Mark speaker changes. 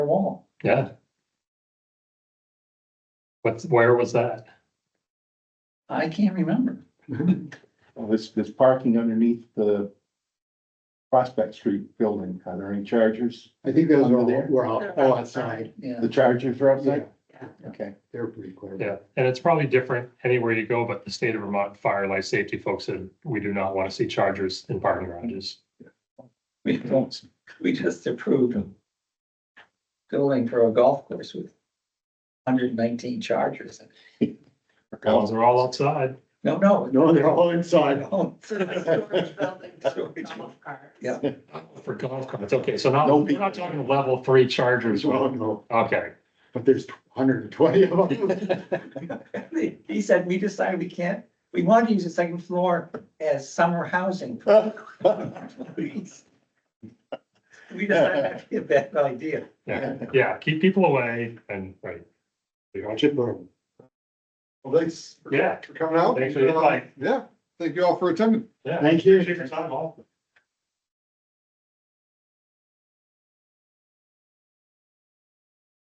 Speaker 1: for Walmart.
Speaker 2: Yeah. What's, where was that?
Speaker 1: I can't remember.
Speaker 3: Well, This, this parking underneath the Prospect Street building, are there any chargers?
Speaker 4: I think those are
Speaker 3: Under
Speaker 4: all,
Speaker 3: there?
Speaker 4: were all, all outside.
Speaker 1: Yeah,
Speaker 3: The chargers are
Speaker 4: Yeah,
Speaker 3: outside? Okay,
Speaker 4: they're pretty clear.
Speaker 2: Yeah, and it's probably different anywhere you go, but the state of Vermont Fire Life Safety folks said, we do not want to see chargers in parking garages.
Speaker 1: we don't, we just approved a building for a golf course with hundred and nineteen chargers.
Speaker 2: Ones are all outside.
Speaker 1: No, no.
Speaker 4: No, they're all inside.
Speaker 1: No.
Speaker 5: Storage building,
Speaker 1: Storage.
Speaker 5: golf cart.
Speaker 1: Yeah.
Speaker 2: For golf carts, okay, so not,
Speaker 4: No.
Speaker 2: we're not talking level three chargers,
Speaker 4: As well,
Speaker 2: well,
Speaker 4: no,
Speaker 2: okay,
Speaker 4: but there's hundred and twenty of them.
Speaker 1: He said, we decided we can't, we want to use the second floor as summer housing. for our employees." We decided that'd be a bad idea.
Speaker 2: yeah, yeah, keep people away and, right. We want you-
Speaker 4: Chip room.
Speaker 6: Well, thanks
Speaker 2: Yeah,
Speaker 6: for coming out.
Speaker 2: Thanks for your time.
Speaker 4: Um,
Speaker 6: Yeah, thank you all for attending.
Speaker 2: yeah.
Speaker 4: Thank you.
Speaker 2: Appreciate your time, all.